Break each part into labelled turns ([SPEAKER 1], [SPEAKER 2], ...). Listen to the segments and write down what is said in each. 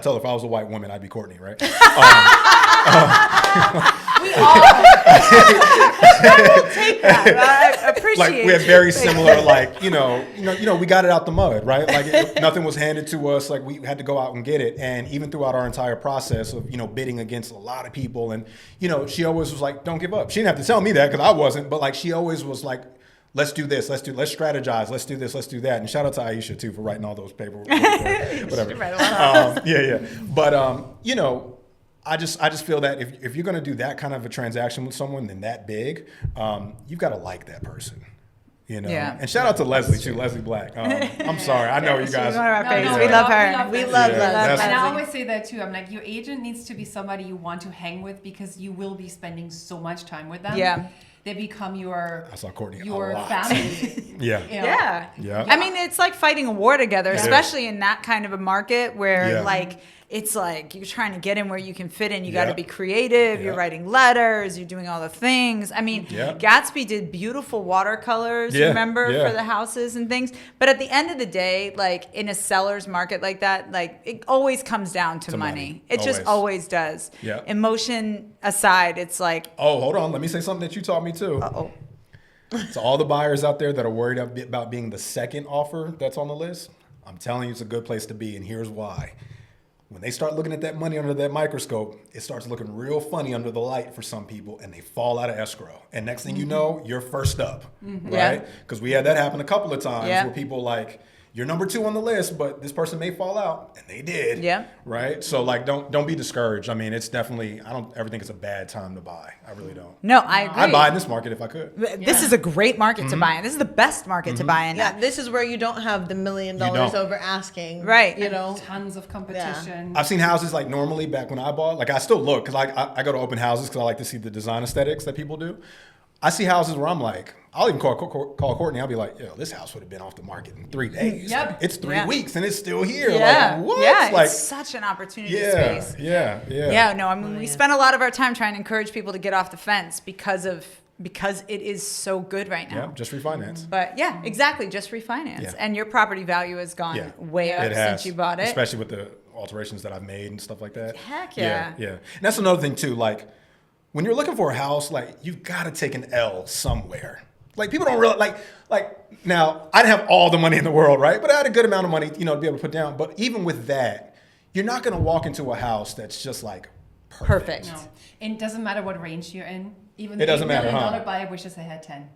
[SPEAKER 1] tell her if I was a white woman, I'd be Courtney, right? Um,
[SPEAKER 2] We all. I will take that. I appreciate
[SPEAKER 1] like we have
[SPEAKER 2] you.
[SPEAKER 1] very similar, like you know, you know, you know, we got it out the mud, right? Like it, nothing was handed to us. Like we had to go out and get it. And even throughout our entire process of you know bidding against a lot of people, and you know, she always was like, "Don't give up." She didn't have to tell me that because I wasn't, but like she always was like. Let's do this. Let's do. Let's strategize. Let's do this. Let's do that. And shout out to Aisha too for writing all those papers. Whatever.
[SPEAKER 2] Right, well,
[SPEAKER 1] um, yeah, yeah. But um, you know, I just I just feel that if, if you're gonna do that kind of a transaction with someone, then that big, um, you've got to like that person. You know.
[SPEAKER 3] Yeah.
[SPEAKER 1] And shout out to Leslie too, Leslie Black. Um, I'm sorry, I know you
[SPEAKER 2] she's
[SPEAKER 1] guys.
[SPEAKER 2] one of our
[SPEAKER 3] No,
[SPEAKER 2] faves.
[SPEAKER 3] no,
[SPEAKER 2] we,
[SPEAKER 3] we
[SPEAKER 2] love
[SPEAKER 3] love-
[SPEAKER 2] her.
[SPEAKER 3] we love
[SPEAKER 2] We
[SPEAKER 3] Leslie.
[SPEAKER 2] love,
[SPEAKER 1] Yeah,
[SPEAKER 2] love,
[SPEAKER 1] that's-
[SPEAKER 3] And I
[SPEAKER 2] Leslie.
[SPEAKER 3] always say that too. I'm like, your agent needs to be somebody you want to hang with because you will be spending so much time with them.
[SPEAKER 2] Yeah.
[SPEAKER 3] They become your
[SPEAKER 1] I saw Courtney a
[SPEAKER 3] your
[SPEAKER 1] lot.
[SPEAKER 3] family.
[SPEAKER 1] Yeah.
[SPEAKER 3] you know.
[SPEAKER 2] Yeah.
[SPEAKER 1] Yeah.
[SPEAKER 2] I mean, it's like fighting a war together,
[SPEAKER 1] Yeah.
[SPEAKER 2] especially in that kind of a market where
[SPEAKER 1] Yeah.
[SPEAKER 2] like it's like you're trying to get in where you can fit in. You got
[SPEAKER 1] Yeah.
[SPEAKER 2] to be creative. You're
[SPEAKER 1] Yeah.
[SPEAKER 2] writing letters. You're doing all the things. I mean,
[SPEAKER 1] Yeah.
[SPEAKER 2] Gatsby did beautiful watercolors.
[SPEAKER 1] Yeah,
[SPEAKER 2] Remember
[SPEAKER 1] yeah.
[SPEAKER 2] for the houses and things. But at the end of the day, like in a seller's market like that, like it always comes down to,
[SPEAKER 1] To
[SPEAKER 2] money.
[SPEAKER 1] money.
[SPEAKER 2] It just always
[SPEAKER 1] Always.
[SPEAKER 2] does.
[SPEAKER 1] Yeah.
[SPEAKER 2] Emotion aside, it's like
[SPEAKER 1] Oh, hold on. Let me say something that you taught me too.
[SPEAKER 2] oh.
[SPEAKER 1] So all the buyers out there that are worried ab- about being the second offer that's on the list, I'm telling you, it's a good place to be, and here's why. When they start looking at that money under that microscope, it starts looking real funny under the light for some people, and they fall out of escrow. And next thing you know, you're first up,
[SPEAKER 2] Mm-hmm. Yeah.
[SPEAKER 1] right? Because we had that happen a couple of times
[SPEAKER 2] Yeah.
[SPEAKER 1] where people like, you're number two on the list, but this person may fall out, and they did.
[SPEAKER 2] Yeah.
[SPEAKER 1] Right. So like, don't don't be discouraged. I mean, it's definitely I don't ever think it's a bad time to buy. I really don't.
[SPEAKER 2] No, I agree.
[SPEAKER 1] I'd buy Mm-hmm. in this market if I could.
[SPEAKER 2] This is a great market to buy in. This is the best market
[SPEAKER 1] Mm-hmm.
[SPEAKER 2] to buy in.
[SPEAKER 4] Yeah, this is where you don't have the million
[SPEAKER 1] You
[SPEAKER 4] dollars
[SPEAKER 1] don't.
[SPEAKER 4] over asking.
[SPEAKER 2] Right.
[SPEAKER 4] You know,
[SPEAKER 3] tons of competition.
[SPEAKER 1] I've seen houses like normally back when I bought, like I still look because I, I I go to open houses because I like to see the design aesthetics that people do. I see houses where I'm like, I'll even call Cor- call Courtney. I'll be like, yo, this house would have been off the market in three days.
[SPEAKER 3] Yep.
[SPEAKER 1] It's three
[SPEAKER 2] Yeah.
[SPEAKER 1] weeks and it's still here.
[SPEAKER 2] Yeah.
[SPEAKER 1] Like, what?
[SPEAKER 2] Yeah.
[SPEAKER 1] like,
[SPEAKER 2] it's such an opportunity
[SPEAKER 1] yeah,
[SPEAKER 2] space.
[SPEAKER 1] yeah, yeah,
[SPEAKER 2] Yeah. No, I mean, we spend a lot of our time trying to encourage people to get off the fence because of because it is so good right now.
[SPEAKER 1] Yeah, just refinance.
[SPEAKER 2] But yeah, exactly. Just refinance,
[SPEAKER 1] Yeah.
[SPEAKER 2] and your property value has gone
[SPEAKER 1] Yeah.
[SPEAKER 2] way up
[SPEAKER 1] It has,
[SPEAKER 2] since you bought it.
[SPEAKER 1] Especially with the alterations that I've made and stuff like that.
[SPEAKER 2] Heck yeah.
[SPEAKER 1] Yeah. And that's another thing too, like when you're looking for a house, like you've gotta take an L somewhere. Like people don't realize like like now I didn't have all the money in the world, right? But I had a good amount of money, you know, to be able to put down. But even with that, you're not gonna walk into a house that's just like
[SPEAKER 2] Perfect.
[SPEAKER 4] no. And it doesn't matter what range you're in.
[SPEAKER 3] Even
[SPEAKER 1] It doesn't
[SPEAKER 4] $8
[SPEAKER 1] matter,
[SPEAKER 4] million
[SPEAKER 1] huh?
[SPEAKER 4] dollar buyer wishes they had ten.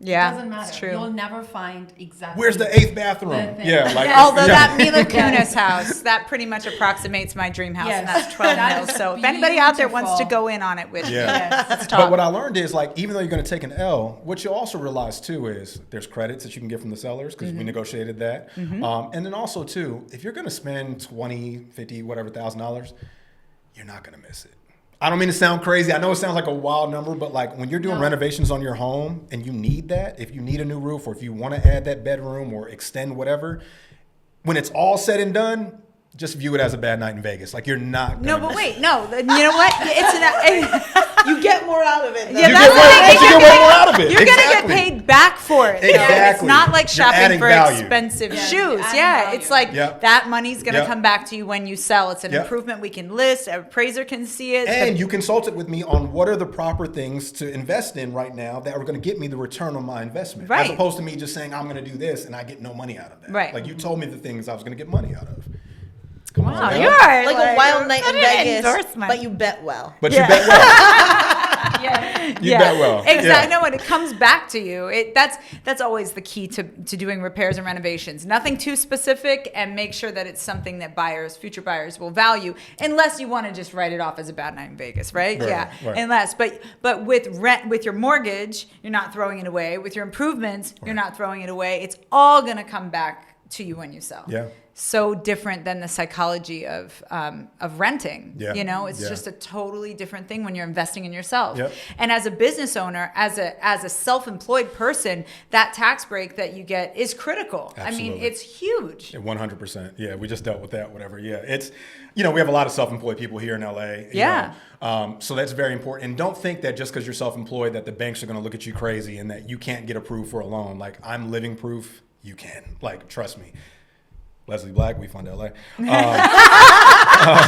[SPEAKER 2] Yeah.
[SPEAKER 4] doesn't matter.
[SPEAKER 2] It's true.
[SPEAKER 4] You'll never find exactly.
[SPEAKER 1] Where's the eighth bathroom?
[SPEAKER 4] The thing.
[SPEAKER 1] Yeah, like
[SPEAKER 2] Although
[SPEAKER 1] yeah.
[SPEAKER 2] that Mila Kunis house, that pretty much approximates my dream house, and
[SPEAKER 3] Yes.
[SPEAKER 2] that's 12
[SPEAKER 3] That
[SPEAKER 2] mil.
[SPEAKER 3] is
[SPEAKER 2] So if anybody out there wants to
[SPEAKER 3] beautiful.
[SPEAKER 2] go in on it with me,
[SPEAKER 1] yeah.
[SPEAKER 2] let's
[SPEAKER 1] But
[SPEAKER 2] talk.
[SPEAKER 1] what I learned is like even though you're going to take an L, what you also realize too is there's credits that you can get from the sellers because
[SPEAKER 2] Mm-hmm.
[SPEAKER 1] we negotiated that. Um, and then also too, if you're going to spend 20, 50, whatever thousand dollars, you're not going to miss it. I don't mean to sound crazy. I know it sounds like a wild number, but like when you're doing renovations on your home and you need that, if you need a new roof or if you want to add that bedroom or extend whatever, when it's all said and done, just view it as a bad night in Vegas. Like you're not.
[SPEAKER 2] no,
[SPEAKER 1] gonna
[SPEAKER 2] but
[SPEAKER 1] miss it.
[SPEAKER 2] wait, no. You know what? It's an.
[SPEAKER 4] You get more out of it. though.
[SPEAKER 2] Yeah,
[SPEAKER 1] You
[SPEAKER 2] that's
[SPEAKER 1] get
[SPEAKER 2] what
[SPEAKER 1] way-
[SPEAKER 2] I
[SPEAKER 1] but
[SPEAKER 2] think
[SPEAKER 1] you
[SPEAKER 2] you're
[SPEAKER 1] get way
[SPEAKER 2] gonna-
[SPEAKER 1] more out of it.
[SPEAKER 2] You're
[SPEAKER 1] Exactly.
[SPEAKER 2] gonna get paid back for it. though. It's
[SPEAKER 1] Exactly.
[SPEAKER 2] not like
[SPEAKER 1] You're
[SPEAKER 2] shopping
[SPEAKER 1] adding
[SPEAKER 2] for
[SPEAKER 1] value.
[SPEAKER 2] expensive
[SPEAKER 3] Yeah,
[SPEAKER 2] shoes.
[SPEAKER 3] you're adding
[SPEAKER 2] Yeah,
[SPEAKER 3] value.
[SPEAKER 2] it's like
[SPEAKER 1] Yep.
[SPEAKER 2] that money's gonna
[SPEAKER 1] Yep.
[SPEAKER 2] come back to you when you sell. It's an
[SPEAKER 1] Yep.
[SPEAKER 2] improvement we can list. An appraiser can see it.
[SPEAKER 1] And you consulted with me on what are the proper things to invest in right now that are going to get me the return on my investment,
[SPEAKER 2] Right.
[SPEAKER 1] as opposed to me just saying I'm going to do this and I get no money out of that.
[SPEAKER 2] Right.
[SPEAKER 1] Like you told me the things I was going to get money out of. Come
[SPEAKER 2] wow,
[SPEAKER 3] Oh,
[SPEAKER 1] now.
[SPEAKER 2] you are
[SPEAKER 4] Like a wild night
[SPEAKER 2] what
[SPEAKER 4] in
[SPEAKER 2] an
[SPEAKER 4] Vegas,
[SPEAKER 2] endorsement.
[SPEAKER 4] but you bet well.
[SPEAKER 1] But
[SPEAKER 2] Yeah.
[SPEAKER 1] you bet well.
[SPEAKER 3] yeah.
[SPEAKER 1] You bet well.
[SPEAKER 2] Exactly.
[SPEAKER 1] Yeah.
[SPEAKER 2] No, when it comes back to you, it that's that's always the key to to doing repairs and renovations. Nothing too specific, and make sure that it's something that buyers, future buyers, will value. Unless you want to just write it off as a bad night in Vegas, right?
[SPEAKER 1] Right,
[SPEAKER 2] yeah.
[SPEAKER 1] right.
[SPEAKER 2] Unless, but but with rent, with your mortgage, you're not throwing it away. With your improvements, you're not throwing it away. It's all gonna come back to you when you sell.
[SPEAKER 1] Yeah.
[SPEAKER 2] So different than the psychology of um, of renting.
[SPEAKER 1] Yeah.
[SPEAKER 2] You know, it's
[SPEAKER 1] Yeah.
[SPEAKER 2] just a totally different thing when you're investing in yourself.
[SPEAKER 1] Yep.
[SPEAKER 2] And as a business owner, as a as a self-employed person, that tax break that you get is critical. I mean,
[SPEAKER 1] Absolutely.
[SPEAKER 2] it's huge.
[SPEAKER 1] One hundred percent. Yeah, we just dealt with that. Whatever. Yeah, it's you know we have a lot of self-employed people here in LA. you
[SPEAKER 2] Yeah.
[SPEAKER 1] know, um, so that's very important. And don't think that just because you're self-employed that the banks are going to look at you crazy and that you can't get approved for a loan. Like I'm living proof. You can. Like trust me. Leslie Black, we fund LA. Um,